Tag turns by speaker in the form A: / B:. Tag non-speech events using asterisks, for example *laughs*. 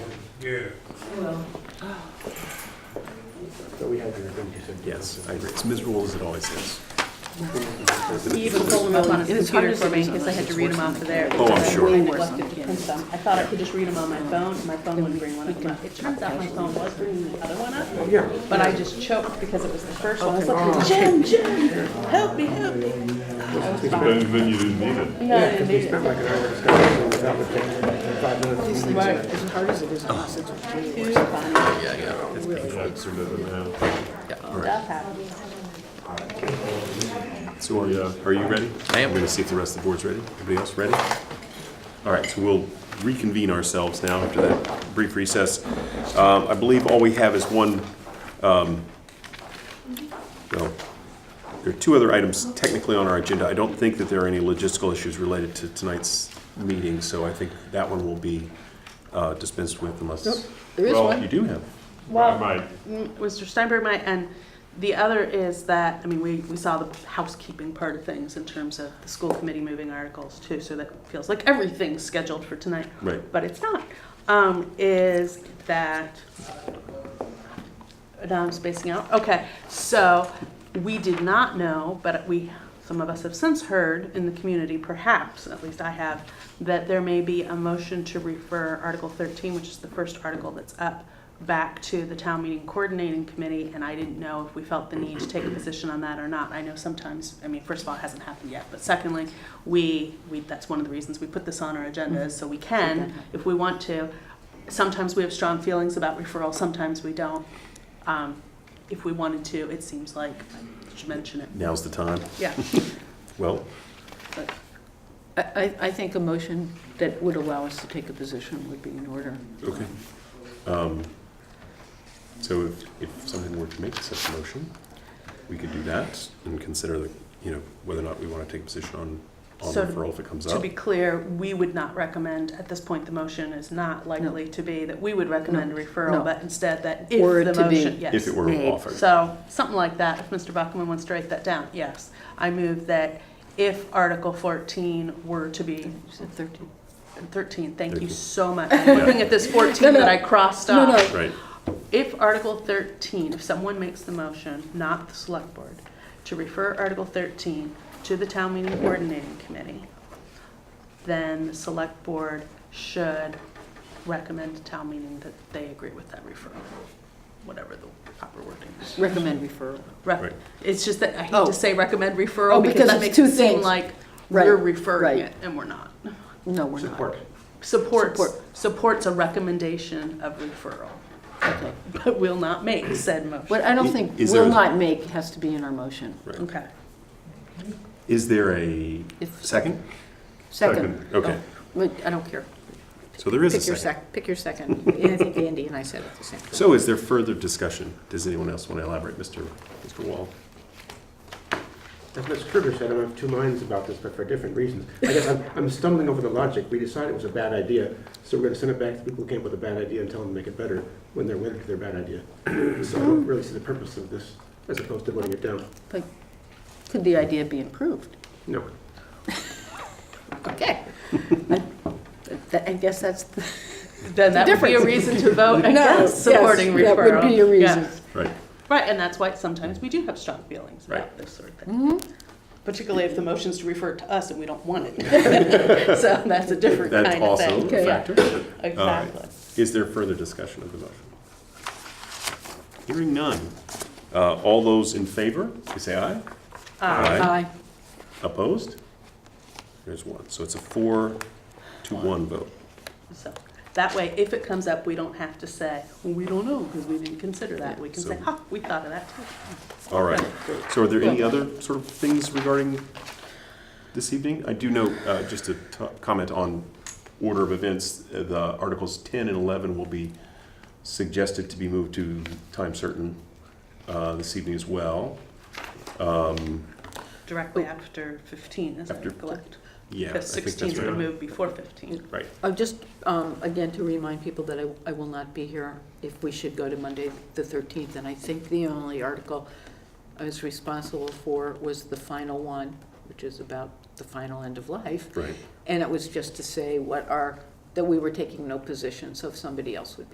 A: Yeah.
B: Well,
C: So we had to agree to some.
D: Yes, I agree. It's miserable as it always is.
E: He even pulled them up on his computer for me because I had to read them off of there.
D: Oh, I'm sure.
E: I neglected to print them. I thought I could just read them on my phone, and my phone wouldn't bring one of them up. It turns out my phone was bringing the other one
D: Oh,
E: up,
C: Yeah.
E: but I just choked because it was the first one. I was like, Jen, Jen, help me, help me. I was fine.
F: Then, then you didn't need it.
E: No, I
C: Because
E: didn't
C: we
E: need
C: spent
E: it.
C: like an hour discussing without the thing, and five minutes. we
E: Right.
C: leaked it.
B: as hard as it is, it's it's
E: Too funny.
D: Yeah, yeah. It's painful.
F: That's sort of now.
E: Stuff happens.
D: So are you, uh, are you ready? I am. We're gonna see if the rest of the board's ready. Everybody else ready? All right, so we'll reconvene ourselves now after that brief recess. Um, I believe all we have is one, um, well, there are two other items technically on our agenda. I don't think that there are any logistical issues related to tonight's meeting, so I think that one will be uh, dispensed with unless.
B: There is
D: Well,
B: one.
D: you do have.
F: I
E: Well,
F: might.
E: Mm, Mr. Steinberg might, and the other is that, I mean, we, we saw the housekeeping part of things in terms of the school committee moving articles too, so that feels like everything's scheduled for tonight.
D: Right.
E: But it's not, um, is that, now I'm spacing out, okay, so we did not know, but we, some of us have since heard in the community, perhaps, at least I have, that there may be a motion to refer Article thirteen, which is the first article that's up, back to the town meeting coordinating committee, and I didn't know if we felt the need to take a position on that or not. I know sometimes, I mean, first of all, it hasn't happened yet, but secondly, we, we, that's one of the reasons we put this on our agenda, is so we can, if we want to. Sometimes we have strong feelings about referral, sometimes we don't. Um, if we wanted to, it seems like, I should mention it,
D: Now's the time.
E: yeah.
D: *laughs* Well,
E: but-
B: I, I- I think a motion that would allow us to take a position would be in order.
D: Okay. Um, So if, if something were to make such a motion, we could do that and consider the, you know, whether or not we want to take a position on, on
E: So to-
D: referral if it comes
E: To
D: up.
E: be clear, we would not recommend, at this point, the motion is not likely to be that we would recommend a referral,
B: No.
E: but instead that
B: Were
E: if
B: it
E: the
B: to be.
E: motion, yes.
D: If it were
B: Made.
D: offered.
E: So, something like that, if Mr. Buckman wants to write that down, yes. I move that if Article 14 were to be,
B: You said 13.
E: 13, thank you
D: Thirteen. *laughs*
E: so much. I'm looking at this 14
B: No, no.
E: that I crossed
B: No, no.
E: off.
D: Right,
E: If Article 13, if someone makes the motion, not the select board, to refer Article 13 to the town meeting coordinating committee, then the select board should recommend to town meeting that they agree with that referral, whatever the proper wording is.
B: Recommend referral.
E: Re-
D: Right.
E: It's just that I hate
B: Oh.
E: to say recommend
B: Oh,
E: referral because
B: because
E: that
B: it's
E: makes
B: two
E: it seem
B: things.
E: like
B: Right,
E: we're referring
B: right.
E: it and we're not.
B: No, we're not.
C: Support.
E: Supports,
B: Support.
E: supports a recommendation of referral,
B: Okay.
E: but will not make said motion.
B: What I don't
D: I-
B: think
D: is there
B: will
D: a-
B: not make has to be in our motion.
D: right.
E: Okay.
D: Is there a
B: If-
D: second?
B: Second.
D: Okay,
E: Oh.
B: But I don't care.
D: so there is a
G: Pick your
D: second.
G: sec, pick your second. I think Andy and I said it the same.
D: So is there further discussion? Does anyone else want to elaborate, Mr. Mr. Wall?
C: As Ms. Kruger said, I'm of two minds about this, but for different reasons. I guess I'm, I'm stumbling over the logic. We decided it was a bad idea, so we're gonna send it back to people who came up with a bad idea and tell them to make it better when they're wedded to their bad idea. So I don't really see the purpose of this, as opposed to voting it down.
B: But could the idea be improved?
C: No.
D: *laughs*
B: *laughs* Okay. That- I guess that's the
E: Then that would be a reason to
B: *laughs*
E: vote against supporting referral.
B: That would be a reason.
E: Yeah.
D: Right,
E: Right, and that's why sometimes we do have strong feelings about
D: Right.
E: this sort of thing.
B: Mm-hmm.
E: Particularly if the motion's to refer it to us and we don't want
B: *laughs*
E: it. *laughs* So that's a different
D: that's
E: kind of
D: also
E: thing.
D: a factor.
E: Yeah, Exactly.
D: Is there further discussion of the motion? Hearing none. Uh, All those in favor, please say aye.
B: Aye.
D: Opposed? There's one. So it's a four to one vote.
E: So that way, if it comes up, we don't have to say, "Well, we don't know because we didn't consider that. We can
D: So-
E: say, ha, we thought of that too.
D: All right. So are there any other sort of things regarding this evening? I do know, uh, just to t- comment on order of events, uh, the Articles 10 and 11 will be suggested to be moved to time certain uh, this evening as well. Um,
E: Directly after 15, is that
D: After-
E: correct?
D: Yeah, I
E: Because
D: think
E: 16
D: that's
E: is
D: right.
E: removed before 15.
D: Right.
B: Oh, Just, um, again, to remind people that I I will not be here if we should go to Monday, the 13th, and I think the only article I was responsible for was the final one, which is about the final end of life,
D: Right.
B: and it was just to say what our, that we were taking no position, so if somebody else would be